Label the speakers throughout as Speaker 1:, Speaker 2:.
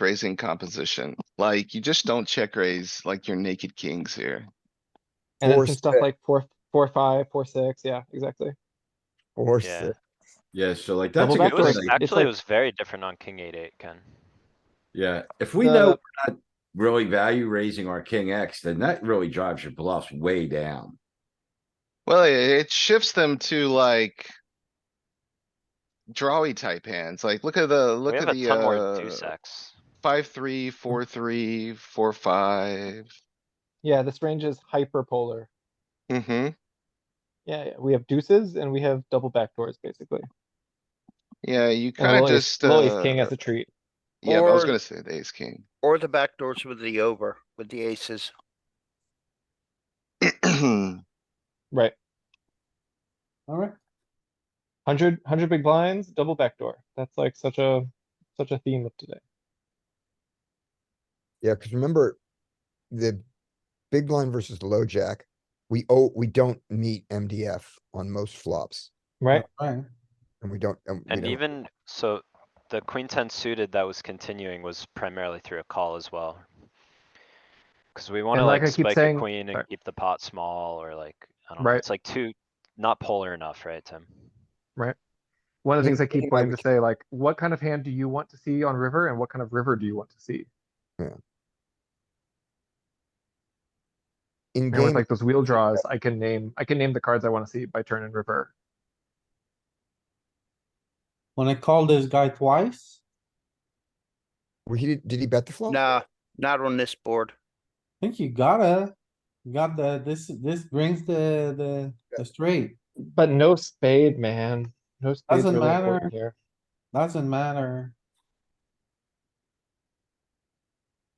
Speaker 1: raising composition. Like, you just don't check raise like your naked kings here.
Speaker 2: And then
Speaker 3: Four
Speaker 2: some stuff
Speaker 3: six.
Speaker 2: like four, four, five, four, six, yeah, exactly.
Speaker 3: Or
Speaker 4: Yeah.
Speaker 3: six.
Speaker 5: Yeah, so like that's
Speaker 2: Double
Speaker 5: a good
Speaker 2: back
Speaker 4: It was-
Speaker 2: doors.
Speaker 5: thing.
Speaker 2: It's
Speaker 4: Actually,
Speaker 2: like-
Speaker 4: it was very different on king eight eight, Ken.
Speaker 5: Yeah, if we know we're not really value raising our king X, then that really drives your bluffs way down.
Speaker 1: Well, it- it shifts them to like. Drawy type hands, like look at the, look
Speaker 4: We have
Speaker 1: at
Speaker 4: a
Speaker 1: the,
Speaker 4: ton more
Speaker 1: uh,
Speaker 4: deuce X.
Speaker 1: five, three, four, three, four, five.
Speaker 2: Yeah, this range is hyperpolar.
Speaker 1: Mm-hmm,
Speaker 2: Yeah, yeah, we have deuces and we have double backdoors, basically.
Speaker 1: yeah, you
Speaker 2: And
Speaker 1: kinda
Speaker 2: low ace,
Speaker 1: just,
Speaker 2: low ace
Speaker 1: uh,
Speaker 2: king as a treat.
Speaker 1: yeah, but I was
Speaker 6: Or-
Speaker 1: gonna say the ace king.
Speaker 6: Or the back doors with the over, with the aces.
Speaker 2: Right.
Speaker 7: Alright,
Speaker 2: Hundred, hundred big blinds, double backdoor. That's like such a, such a theme of today.
Speaker 3: Yeah, because remember, the big blind versus the low jack, we oh, we don't meet MDF on most flops,
Speaker 2: Right?
Speaker 7: fine.
Speaker 3: and we don't. we
Speaker 4: And
Speaker 3: don't-
Speaker 4: even, so the queen ten suited that was continuing was primarily through a call as well. Cause we wanna
Speaker 8: And like
Speaker 4: like
Speaker 8: I keep
Speaker 4: spike a
Speaker 8: saying-
Speaker 4: queen and
Speaker 8: sorry.
Speaker 4: keep the pot small or like, I don't know,
Speaker 8: Right.
Speaker 4: it's like too, not polar enough, right, Tim?
Speaker 8: One of the things I
Speaker 3: Yeah,
Speaker 8: keep wanting
Speaker 3: we
Speaker 8: to say, like, what kind of hand do you want to see on river and what kind of river do you want to see?
Speaker 3: In
Speaker 8: And with
Speaker 3: game,
Speaker 8: like those wheel draws, I can name, I can name the cards I wanna see by turn and river.
Speaker 7: When I call this guy twice,
Speaker 3: were he, did he bet the flop?
Speaker 6: Nah, not on this board.
Speaker 7: I think you gotta, you got the, this, this brings the, the, the straight.
Speaker 2: But no spade, man. No spade's
Speaker 7: Doesn't
Speaker 2: really
Speaker 7: matter.
Speaker 2: important here.
Speaker 7: Doesn't matter.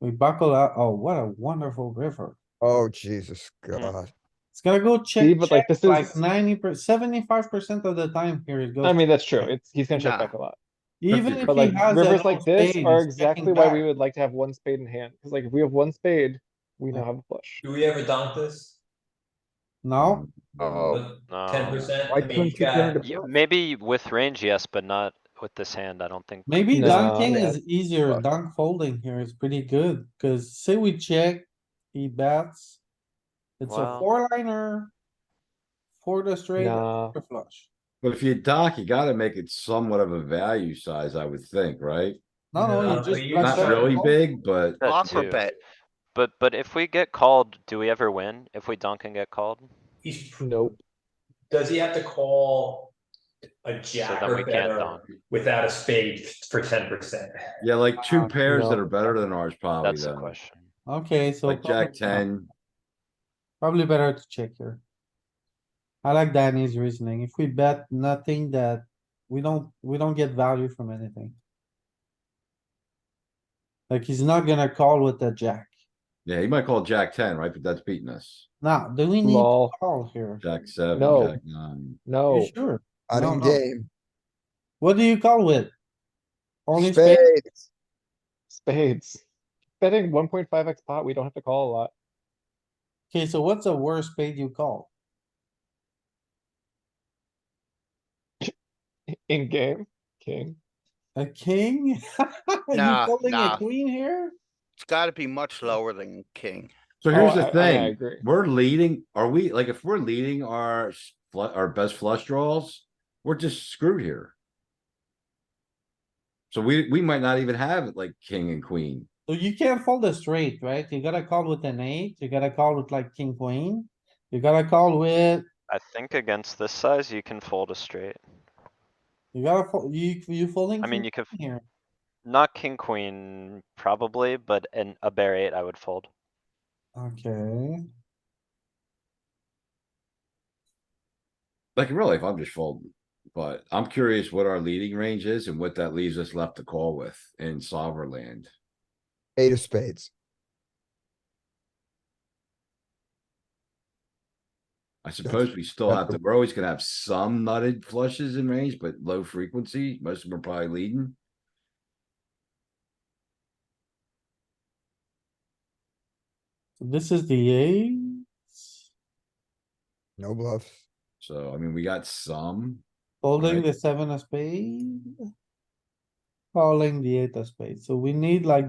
Speaker 7: We buckle up. Oh, what a wonderful river.
Speaker 3: Oh, Jesus
Speaker 4: Mm.
Speaker 3: God.
Speaker 7: It's gonna go
Speaker 2: See,
Speaker 7: check,
Speaker 2: but like
Speaker 7: check,
Speaker 2: this
Speaker 7: like
Speaker 2: is-
Speaker 7: ninety per, seventy-five percent of the time here it goes.
Speaker 2: I mean, that's true. It's, he's gonna check
Speaker 6: Nah.
Speaker 2: back a lot.
Speaker 7: Even if
Speaker 2: But
Speaker 7: he
Speaker 2: like
Speaker 7: has. an
Speaker 2: rivers
Speaker 7: off
Speaker 2: like this
Speaker 7: spade,
Speaker 2: are
Speaker 7: he's checking
Speaker 2: exactly why we
Speaker 7: back.
Speaker 2: would like to have one spade in hand. Cause like if we have one spade, we now have a flush.
Speaker 9: Do we ever dunk this?
Speaker 7: No,
Speaker 3: Oh,
Speaker 9: Ten
Speaker 4: No.
Speaker 9: percent?
Speaker 3: why couldn't you get into
Speaker 4: Yeah, Um, Maybe with range, yes, but not with this hand, I don't think.
Speaker 7: maybe
Speaker 2: No,
Speaker 7: dunking
Speaker 2: man.
Speaker 7: is easier. Dunk folding here is pretty good, cuz say we check, he bets. It's a
Speaker 4: Wow.
Speaker 7: four liner. For the straight
Speaker 2: Nah.
Speaker 7: or flush.
Speaker 5: But if you dock, you gotta make it somewhat of a value size, I would think, right?
Speaker 7: No, no,
Speaker 9: Nah,
Speaker 7: you
Speaker 9: but
Speaker 7: just.
Speaker 9: Uh, you-
Speaker 7: flush
Speaker 5: Not
Speaker 7: out.
Speaker 5: really big, but
Speaker 4: That
Speaker 6: Flopper
Speaker 4: too.
Speaker 6: bet.
Speaker 4: But, but if we get called, do we ever win? If we dunk and get called?
Speaker 9: He's,
Speaker 2: Nope.
Speaker 9: does he have to call a
Speaker 4: So
Speaker 9: jack
Speaker 4: then
Speaker 9: or
Speaker 4: we can't
Speaker 9: better
Speaker 4: dunk.
Speaker 9: without a spade for ten percent?
Speaker 5: yeah, like two
Speaker 7: Wow.
Speaker 5: pairs that
Speaker 2: Uh, No.
Speaker 5: are better than ours probably
Speaker 4: That's the
Speaker 5: though.
Speaker 4: question.
Speaker 7: Okay, so.
Speaker 5: Like jack
Speaker 7: probably-
Speaker 5: ten,
Speaker 7: Probably better to check here. I like Danny's reasoning. If we bet nothing that, we don't, we don't get value from anything. Like, he's not gonna call with the jack.
Speaker 5: yeah, he might call jack ten, right? But that's beating us.
Speaker 7: Now, do we need to
Speaker 2: Lol,
Speaker 7: call here?
Speaker 5: Jack Oh. seven,
Speaker 2: No.
Speaker 5: jack nine.
Speaker 2: no.
Speaker 7: You sure?
Speaker 3: out
Speaker 7: No,
Speaker 3: in
Speaker 7: no.
Speaker 3: game,
Speaker 7: What do you call with? Only spade?
Speaker 3: spades,
Speaker 2: Spades. Betting one point five X pot, we don't have to call a lot.
Speaker 7: Okay, so what's the worst spade you call?
Speaker 2: In game, king.
Speaker 7: A king? Are you
Speaker 6: Nah,
Speaker 7: calling a
Speaker 6: nah.
Speaker 7: queen here?
Speaker 6: It's gotta be much lower than king.
Speaker 5: So here's
Speaker 2: Oh, I- I-
Speaker 5: the
Speaker 2: I
Speaker 5: thing,
Speaker 2: agree.
Speaker 5: we're leading, are we, like, if we're leading our, s- flu- our best flush draws, we're just screwed here. So we, we might not even have like king and queen.
Speaker 7: So you can't fold a straight, right? You gotta call with an eight, you gotta call with like king, queen. You gotta call with,
Speaker 4: I think against this size, you can fold a straight.
Speaker 7: you gotta, fo- you, you folding.
Speaker 4: I mean,
Speaker 7: king
Speaker 4: you could,
Speaker 7: queen Here,
Speaker 4: not king, queen, probably, but an, a bear eight, I would fold.
Speaker 7: okay.
Speaker 5: Like in real life, I'm just folding. But I'm curious what our leading range is and what that leaves us left to call with in sovereign land.
Speaker 3: eight of spades.
Speaker 5: I suppose we still have to, we're always gonna have some nutted flushes in range, but low frequency, most of them are probably leading.
Speaker 7: So this is the eight.
Speaker 3: No bluffs.
Speaker 5: So, I mean, we got some.
Speaker 7: Folding
Speaker 5: Right.
Speaker 7: the seven of spade. Calling the eight of spade. So we need like